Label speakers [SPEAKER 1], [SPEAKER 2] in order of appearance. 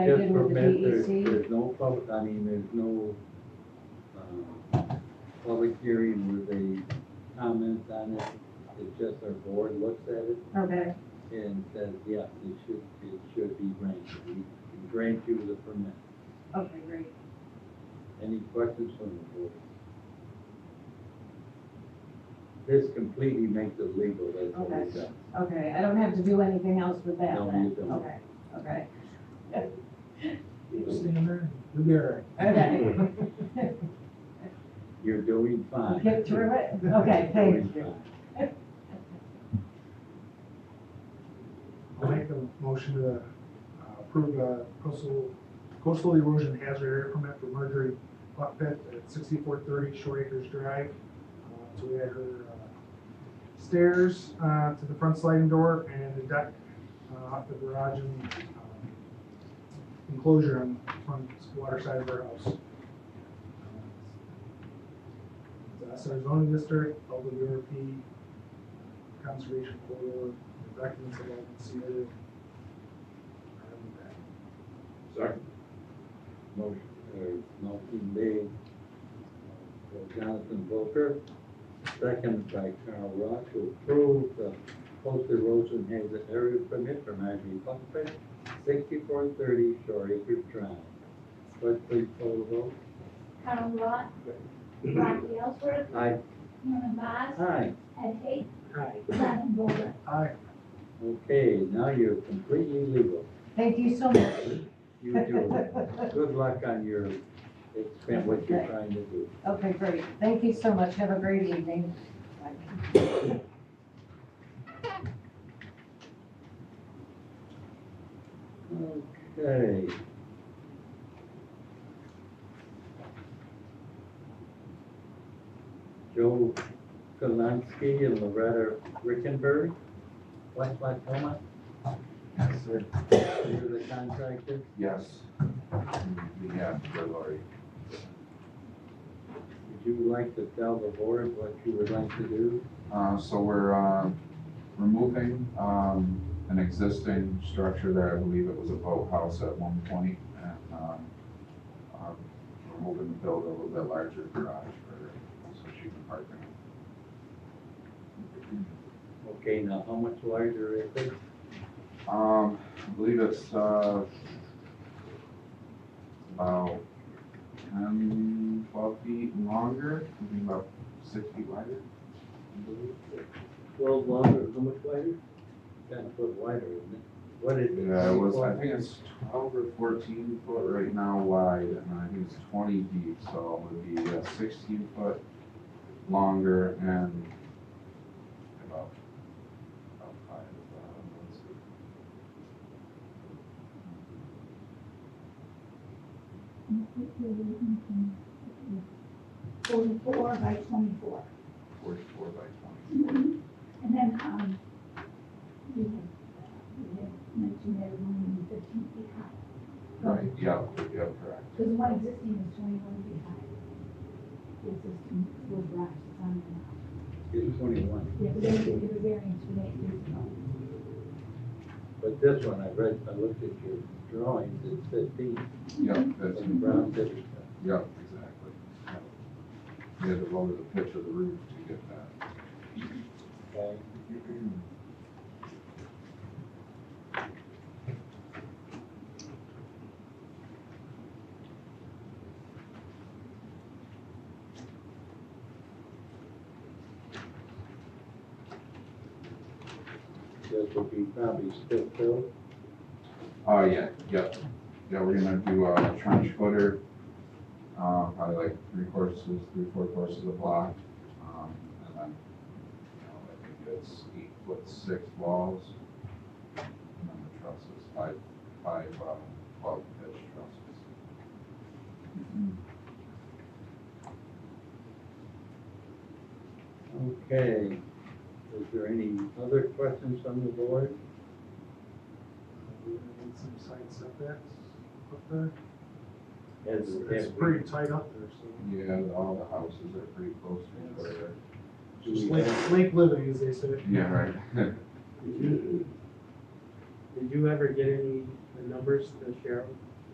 [SPEAKER 1] I
[SPEAKER 2] Just
[SPEAKER 1] did
[SPEAKER 2] for
[SPEAKER 1] with the
[SPEAKER 2] minutes, there's-
[SPEAKER 1] DEC.
[SPEAKER 2] There's no public, I mean, there's no, um, public hearing where they comment on it. It's just our board looks at it
[SPEAKER 1] Okay,
[SPEAKER 2] and says, yes, it should, it should be granted. We can grant you the permit.
[SPEAKER 1] okay, great.
[SPEAKER 2] Any questions from the board? This completely makes it legal, that's what
[SPEAKER 1] Okay.
[SPEAKER 2] we've done.
[SPEAKER 1] Okay, I don't have to do anything else with that
[SPEAKER 2] No,
[SPEAKER 1] then?
[SPEAKER 2] you don't.
[SPEAKER 1] Okay, okay.
[SPEAKER 3] Stammer, Rivera.
[SPEAKER 1] Okay.
[SPEAKER 2] You're doing fine.
[SPEAKER 1] Get through it? Okay,
[SPEAKER 2] Doing
[SPEAKER 1] thank you.
[SPEAKER 2] fine.
[SPEAKER 3] I'll make a motion to uh, approve a coastal, coastal erosion hazard area permit for Marjorie Buck Pit at sixty-four thirty Shore Acres Drive. Uh, So we had her uh, stairs uh, to the front sliding door and the deck uh, off the garage and um, enclosure on the front water side of her house. It's our zoning district, WRP, conservation corridor, the documents have all been submitted. Are in the back.
[SPEAKER 2] Second. Motion, uh, motion made by Jonathan Volker, second by Carl Rock to approve the post erosion hazard area permit for Marjorie Buckford, sixty-four thirty Shore Acres Drive. Clerk, please call the vote.
[SPEAKER 4] Carl Lot, Rocky Ellsworth,
[SPEAKER 2] Aye.
[SPEAKER 4] Norman Boss,
[SPEAKER 2] Aye.
[SPEAKER 4] Ed Hay,
[SPEAKER 3] Hi.
[SPEAKER 4] Gavin Boller.
[SPEAKER 3] Hi.
[SPEAKER 2] Okay, now you're completely legal.
[SPEAKER 1] Thank you so much.
[SPEAKER 2] You do it. Good luck on your, expand what you're trying to do.
[SPEAKER 1] Okay, great. Thank you so much. Have a great evening. Bye.
[SPEAKER 2] Okay. Joe Kalansky and Loretta Rickenberg, West Lacoma,
[SPEAKER 5] Yes, sir.
[SPEAKER 2] you're the contractor.
[SPEAKER 5] Yes. We have, for Lori.
[SPEAKER 2] Would you like to tell the board what you would like to do?
[SPEAKER 5] Uh, so we're, uh, removing, um, an existing structure there, I believe it was a boathouse at one point, and, um, um, we're hoping to build a little bit larger garage for, her, so she can park in it.
[SPEAKER 2] Okay, now how much larger is it?
[SPEAKER 5] Um, I believe it's, uh, about ten, twelve feet longer, something about six feet wider.
[SPEAKER 2] Twelve longer, how much wider? Ten foot wider, isn't it? What is it?
[SPEAKER 5] Yeah, it Uh, was, I
[SPEAKER 2] 24?
[SPEAKER 5] think it's twelve or fourteen foot right now wide, and I think it's twenty deep, so it would be uh, sixteen foot longer and about, about five, um, let's see.
[SPEAKER 4] Forty-four by twenty-four.
[SPEAKER 5] uh, forty-four by twenty.
[SPEAKER 4] And then, um, we had, we had mentioned that it only be fifteen feet high.
[SPEAKER 5] Right, yeah, yeah, correct.
[SPEAKER 4] Because one existing is twenty-one feet high. The existing little garage is on there
[SPEAKER 2] It's twenty-one,
[SPEAKER 4] now. Yeah, but they gave you a variance for that years ago.
[SPEAKER 2] but this one, I read, I looked at your drawings, it's fifteen.
[SPEAKER 5] Yeah, that's,
[SPEAKER 2] And Brown did it.
[SPEAKER 5] yeah, exactly. Yeah. We had to lower the pitch of the roof to get that.
[SPEAKER 2] Okay. This would be probably still filled.
[SPEAKER 5] Oh, yeah, yeah, yeah, we're gonna do a trench footer, uh, probably like three courses, three, four courses a block. Um, and then, you know, I think it's eight foot six walls. And then the trusses, five, five, uh, twelve pitch trusses.
[SPEAKER 2] Okay. Is there any other questions from the board?
[SPEAKER 3] We need some side setbacks up there.
[SPEAKER 2] As-
[SPEAKER 3] It's-
[SPEAKER 2] as
[SPEAKER 3] It's
[SPEAKER 2] we-
[SPEAKER 3] pretty tight up there, so.
[SPEAKER 5] Yeah, all the houses are pretty close to each other.
[SPEAKER 2] do
[SPEAKER 3] Just
[SPEAKER 2] we
[SPEAKER 3] lake,
[SPEAKER 2] have-
[SPEAKER 3] lake living, as they say.
[SPEAKER 5] Yeah, right.
[SPEAKER 6] Did you ever get any the numbers to share